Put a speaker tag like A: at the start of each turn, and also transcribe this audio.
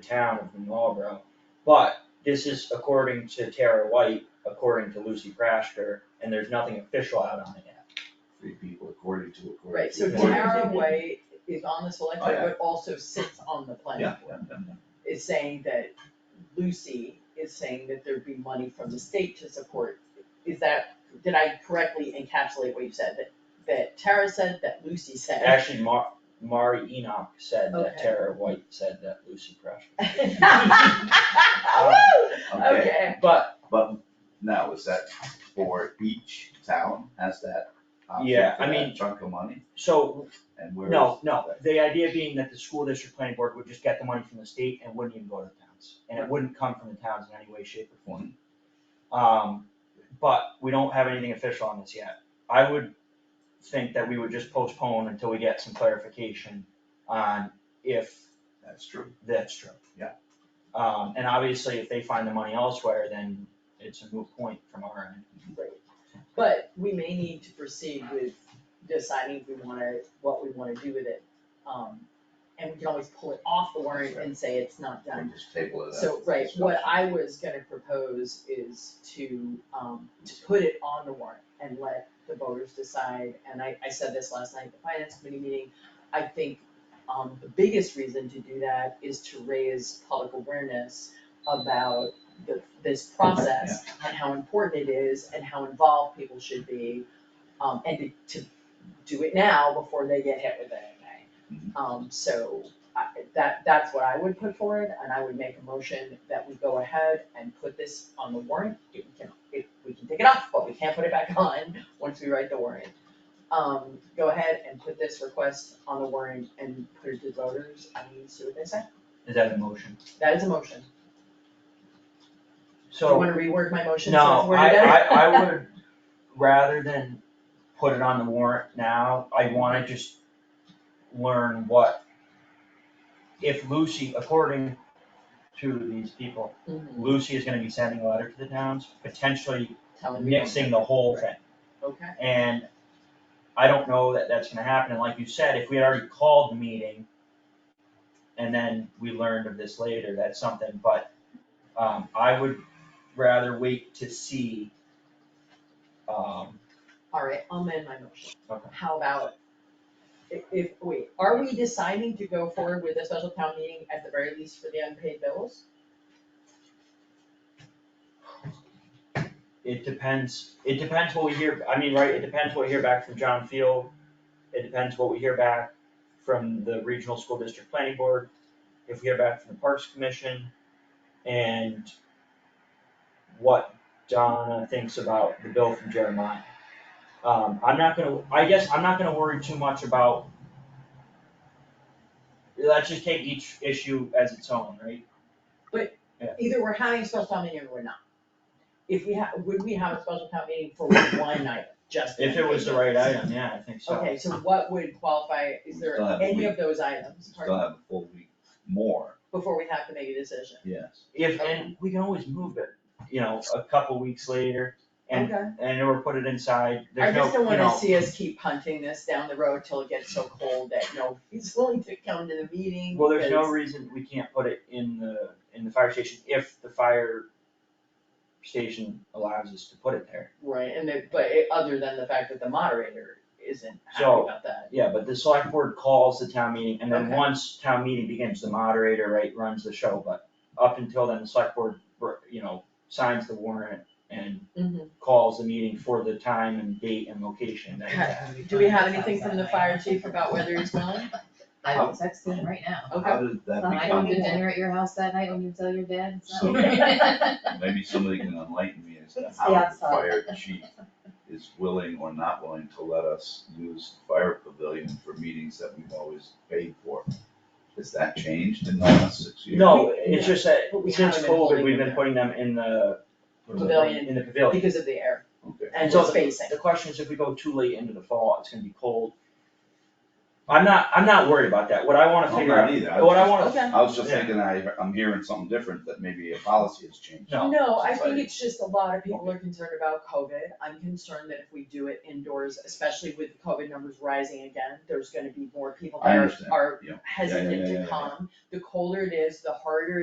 A: town and from Marlboro. But this is according to Tara White, according to Lucy Prashker, and there's nothing official out on it yet.
B: three people according to, according
C: Right,
B: to.
C: so
A: Or-
C: Tara White is on the select board,
B: Oh, yeah.
C: but also sits on the planning
B: Yeah.
C: board. Is saying that Lucy is saying that there'd be money from the state to support, is that, did I correctly encapsulate what you said? That, that Tara said, that Lucy said?
A: Actually, Mar, Mari Enoch said that
C: Okay.
A: Tara White said that Lucy Prashker.
C: Ah, Woo!
B: Okay,
C: Okay,
A: But,
B: but now is that for each town has that option
A: Yeah,
B: for
A: I
B: that
A: mean-
B: chunk of money?
A: so,
B: And where is?
A: no, no, the idea being that the school district planning board would just get the money from the state and wouldn't even go to the towns. And it wouldn't come from the towns in any way, shape or form.
B: One,
A: Um, but we don't have anything official on this yet. I would think that we would just postpone until we get some clarification on if
B: that's true.
A: that's true.
B: Yeah.
A: Um, and obviously, if they find the money elsewhere, then it's a moot point from our end.
C: great. But we may need to proceed with deciding if we wanna, what we wanna do with it. Um, and we can always pull it off the warrant and say it's not done.
B: We just table it.
C: So,
B: as
C: right, what
B: discussion.
C: I was gonna propose is to, um, to put it on the warrant and let the voters decide, and I, I said this last night at the finance committee meeting. I think, um, the biggest reason to do that is to raise public awareness about the, this process and how important it is and how involved people should be, um, and to, to do it now before they get hit with it in May. Um, so, I, that, that's what I would put forward, and I would make a motion that we go ahead and put this on the warrant. If we can, if we can take it off, but we can't put it back on once we write the warrant. Um, go ahead and put this request on the warrant and put it to voters and see what they say.
A: Is that a motion?
C: That is a motion. Do you
A: So,
C: wanna reword my motion so it's
A: no,
C: worded
A: I,
C: better?
A: I, I would, rather than put it on the warrant now, I wanna just learn what, if Lucy, according to these people,
C: Mhm,
A: Lucy is gonna be sending a letter to the towns, potentially
C: Telling me.
A: mixing the whole thing.
C: Okay,
A: And I don't know that that's gonna happen, and like you said, if we had already called the meeting and then we learned of this later, that's something, but, um, I would rather wait to see, um,
C: alright, I'll amend my motion.
A: Okay.
C: How about, if, if, wait, are we deciding to go forward with a special town meeting at the very least for the unpaid bills?
A: it depends, it depends what we hear, I mean, right, it depends what we hear back from John Field. It depends what we hear back from the Regional School District Planning Board, if we hear back from the Parks Commission, and what Donna thinks about the bill from Jeremiah. Um, I'm not gonna, I guess I'm not gonna worry too much about. Let's just take each issue as its own, right?
C: either we're having a special town meeting or we're not. If we have, would we have a special town meeting for one night, just?
A: If it was the right item, yeah, I think so.
C: Okay, so what would qualify, is there
B: Still have a
C: any
B: week.
C: of those items,
B: Still
C: pardon,
B: have a full week more,
C: before we have to make a decision?
B: yes.
A: If, and we can always move it, you know, a couple weeks later and,
C: Okay.
A: and or put it inside,
C: I
A: there's no,
C: just don't
A: you
C: wanna
A: know,
C: see us keep punting this down the road till it gets so cold that nobody's willing to come to the meeting.
A: well, there's no
C: because-
A: reason we can't put it in the, in the fire station if the fire station allows us to put it there.
C: Right, and it, but it, other than the fact that the moderator isn't happy
A: So-
C: about that.
A: Yeah, but the select board calls the town meeting and then
C: Okay.
A: once town meeting begins, the moderator, right, runs the show, but up until then, the select board, you know, signs the warrant and
C: Mhm.
A: calls the meeting for the time and date and location that it's at.
C: Do we have anything from the fire Oh. chief about whether he's willing?
D: I will text him right now.
C: Okay.
B: How did that
D: I
B: become,
D: don't do dinner at your house that night when you tell your dad. it's
B: So-
D: not-
B: maybe somebody can enlighten me as to
D: It's the
B: how the
D: outside.
B: fire chief is willing or not willing to let us use the fire pavilion for meetings that we've always paid for. Has that changed in the last six years?
A: No, it's just that
C: But we
A: since
C: haven't been holding
A: COVID, we've
C: them
A: been
C: there.
A: putting them in the.
C: Pavilion.
A: In the pavilion.
C: Because of the air
B: Okay.
C: and
A: So
C: the spacing.
A: The question is if we go too late into the fall, it's gonna be cold. I'm not, I'm not worried about that, what I wanna
B: I'm
A: figure
B: not
A: out,
B: either. I
A: what I
B: was
A: wanna,
C: Okay.
B: I was just
A: Yeah.
B: thinking I, I'm hearing something different, that maybe a policy has changed.
A: No.
C: No, I
B: Since
C: think it's just a lot of people
B: Okay.
C: are concerned about COVID. I'm concerned that if we do it indoors, especially with COVID numbers rising again, there's gonna be more people
B: I
C: that
B: understand.
C: are
B: Yeah. Yeah, yeah,
C: hesitant
B: yeah, yeah,
C: to
B: yeah.
C: come. The colder it is, the harder